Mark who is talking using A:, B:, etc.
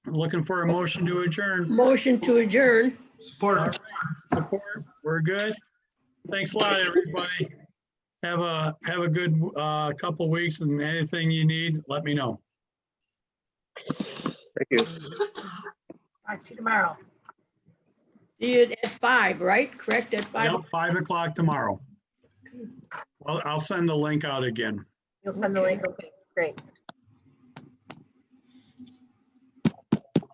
A: Looking for a motion to adjourn.
B: Motion to adjourn.
C: Support.
A: Support. We're good. Thanks a lot, everybody. Have a, have a good uh, couple weeks and anything you need, let me know.
D: Thank you.
E: Talk to you tomorrow.
B: See it at five, right? Correct at five?
A: Yep, Five o'clock tomorrow. Well, I'll send the link out again.
E: You'll send the link. Okay, great.